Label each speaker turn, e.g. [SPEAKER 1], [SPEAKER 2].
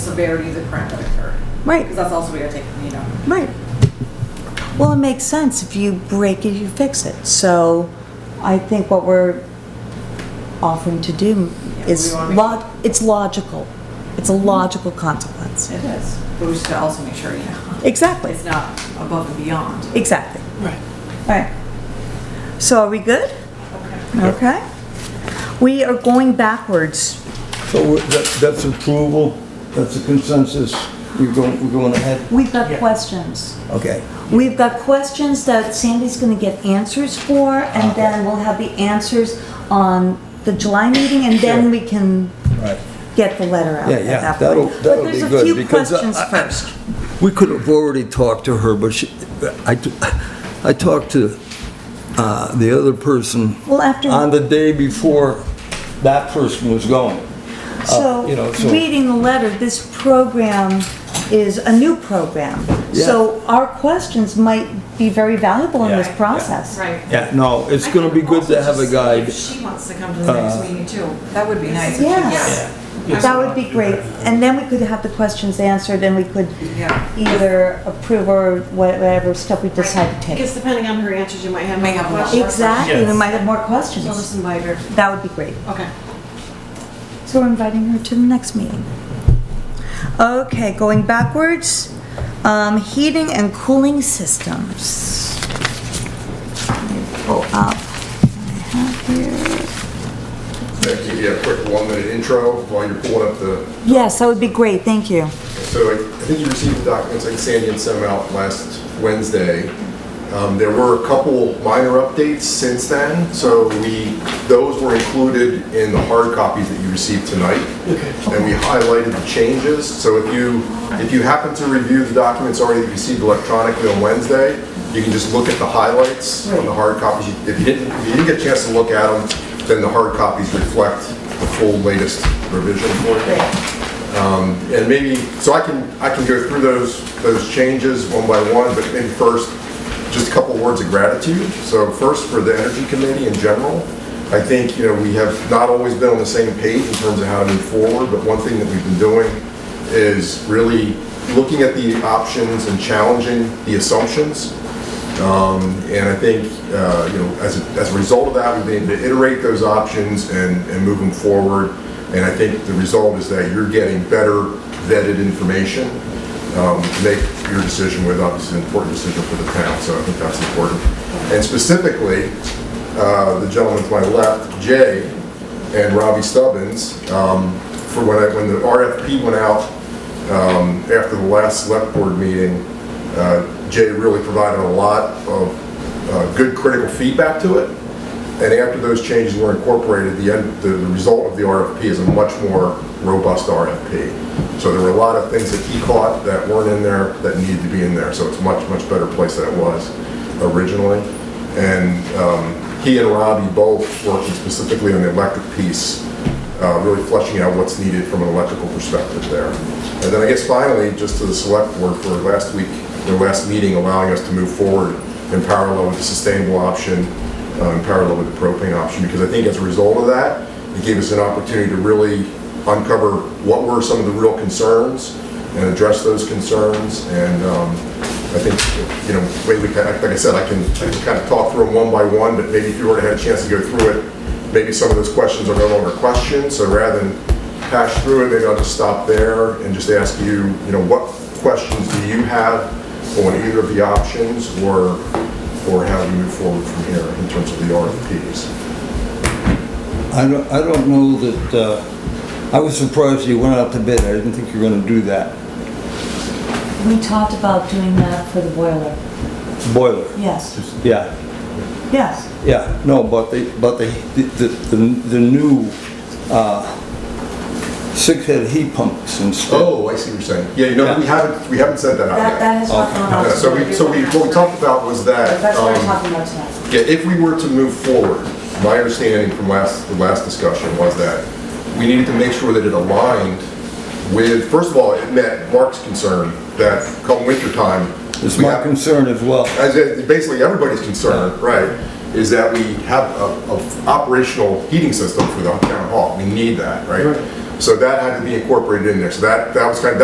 [SPEAKER 1] severity of the crime that occurred.
[SPEAKER 2] Right.
[SPEAKER 1] Because that's also we gotta take, you know.
[SPEAKER 2] Right. Well, it makes sense. If you break it, you fix it. So I think what we're offering to do is
[SPEAKER 1] we wanna make-
[SPEAKER 2] log, it's logical. It's a logical consequence.
[SPEAKER 1] It is. But we should also make sure, you know,
[SPEAKER 2] Exactly,
[SPEAKER 1] it's not above and beyond.
[SPEAKER 2] exactly.
[SPEAKER 3] Right.
[SPEAKER 2] Right. So are we good?
[SPEAKER 1] Okay.
[SPEAKER 2] Okay. We are going backwards.
[SPEAKER 4] So we're- that- that's approval, that's a consensus, you're going, we're going ahead?
[SPEAKER 2] We've got
[SPEAKER 3] Yeah.
[SPEAKER 2] questions.
[SPEAKER 4] Okay.
[SPEAKER 2] We've got questions that Sandy's gonna get answers for, and then we'll have the answers on the July meeting, and then we can
[SPEAKER 4] Right.
[SPEAKER 2] get the letter out
[SPEAKER 4] Yeah,
[SPEAKER 2] at
[SPEAKER 4] yeah,
[SPEAKER 2] that
[SPEAKER 4] that'll-
[SPEAKER 2] point.
[SPEAKER 4] that'll
[SPEAKER 2] But
[SPEAKER 4] be
[SPEAKER 2] there's a
[SPEAKER 4] good,
[SPEAKER 2] few
[SPEAKER 4] because, uh,
[SPEAKER 2] questions first.
[SPEAKER 4] We could have already talked to her, but she, I, t- I talked to uh, the other person
[SPEAKER 2] Well, after-
[SPEAKER 4] uh, on the day before that person was going. uh, you know,
[SPEAKER 2] So,
[SPEAKER 4] so-
[SPEAKER 2] reading the letter, this program is a new program. So our questions might be very valuable in
[SPEAKER 4] Yeah,
[SPEAKER 2] this
[SPEAKER 4] yeah.
[SPEAKER 2] process.
[SPEAKER 1] Right.
[SPEAKER 4] Yeah, no, it's going to be good to have a guide.
[SPEAKER 1] If she wants to come to the next meeting too, that would be nice.
[SPEAKER 2] uh, Yes. That would be great. And then we could have the questions answered, and we could
[SPEAKER 1] Yeah.
[SPEAKER 2] either approve or whatever step we decide to take.
[SPEAKER 5] Because depending on her answers, you might have.
[SPEAKER 1] May have
[SPEAKER 5] more
[SPEAKER 1] more.
[SPEAKER 5] questions.
[SPEAKER 2] Exactly, we
[SPEAKER 3] Yes.
[SPEAKER 2] might have more
[SPEAKER 5] So
[SPEAKER 2] questions.
[SPEAKER 5] just invite her.
[SPEAKER 2] That would be great.
[SPEAKER 5] Okay.
[SPEAKER 2] So we're inviting her to the next meeting. Okay, going backwards, um, heating and cooling systems. Let me Pull up. what I have here.
[SPEAKER 6] Can I give you a quick one-minute intro while you're pulling up the,
[SPEAKER 2] Yes, that would be great, thank you.
[SPEAKER 6] so I I think you received the documents like Sandy and sent them out last Wednesday. Um, There were a couple minor updates since then, so we, those were included in the hard copies that you received tonight. And we highlighted the changes, so if you, if you happen to review the documents already that you received electronically on Wednesday, you can just look at the highlights on the hard copies. If you didn't, if you didn't get a chance to look at them, then the hard copies reflect the full latest revision for you. And maybe, so I can, I can go through those, those changes one by one, but maybe first, just a couple words of gratitude. So first, for the Energy Committee in general, I think, you know, we have not always been on the same page in terms of how to move forward, but one thing that we've been doing is really looking at the options and challenging the assumptions and I think, uh, you know, as a, as a result of that, we've been able to iterate those options and, and move them forward. And I think the result is that you're getting better vetted information um, to make your decision with, obviously, an important decision for the town, so I think that's important. And specifically, uh, the gentleman to my left, Jay, and Robbie Stubbins, um, for when I, when the RFP went out, after the last select board meeting, uh, Jay really provided a lot of uh, good critical feedback to it. And after those changes were incorporated, the end, the the result of the RFP is a much more robust RFP. So there were a lot of things that he caught that weren't in there that needed to be in there. So it's a much, much better place than it was originally. And um, he and Robbie both working specifically on the electric piece uh, really fleshing out what's needed from an electrical perspective there. And then I guess finally, just to the select board for last week, their last meeting, allowing us to move forward in parallel with the sustainable option, uh, in parallel with the propane option, because I think as a result of that, it gave us an opportunity to really uncover what were some of the real concerns and address those concerns. And um, I think, you know, wait, we kind of- like I said, I can I can kind of talk through them one by one, but maybe if you already had a chance to go through it, maybe some of those questions are no longer questions, so rather than hash through it, maybe I'll just stop there and just ask you, you know, what questions do you have on either of the options, or, or how do you move forward from here in terms of the RFPs?
[SPEAKER 4] I don't, I don't know that, uh, I was surprised you went out to bid, I didn't think you were going to do that.
[SPEAKER 2] We talked about doing that for the boiler.
[SPEAKER 4] Boiler,
[SPEAKER 2] Yes,
[SPEAKER 4] yeah.
[SPEAKER 2] yes.
[SPEAKER 4] Yeah, no, but the, but the, the, the the new, uh, six-head heat pumps and stuff.
[SPEAKER 6] Oh, I see what you're saying. Yeah, you know, we haven't, we haven't said that out
[SPEAKER 2] That,
[SPEAKER 6] yet.
[SPEAKER 2] that has
[SPEAKER 4] Uh,
[SPEAKER 2] not gone
[SPEAKER 6] Yeah,
[SPEAKER 2] out.
[SPEAKER 6] So we, so we, what we talked about was that.
[SPEAKER 2] That's what
[SPEAKER 6] um,
[SPEAKER 2] we're talking about tonight.
[SPEAKER 6] Yeah, if we were to move forward, my understanding from last, the last discussion was that we needed to make sure that it aligned with, first of all, it met Mark's concern that come wintertime.
[SPEAKER 4] It's
[SPEAKER 6] we
[SPEAKER 4] my
[SPEAKER 6] have-
[SPEAKER 4] concern as well.
[SPEAKER 6] as it- basically everybody's concern, right, is that we have a, a operational heating system for the town hall. We need that, right? So that had to be incorporated in there. So that, that was kind of,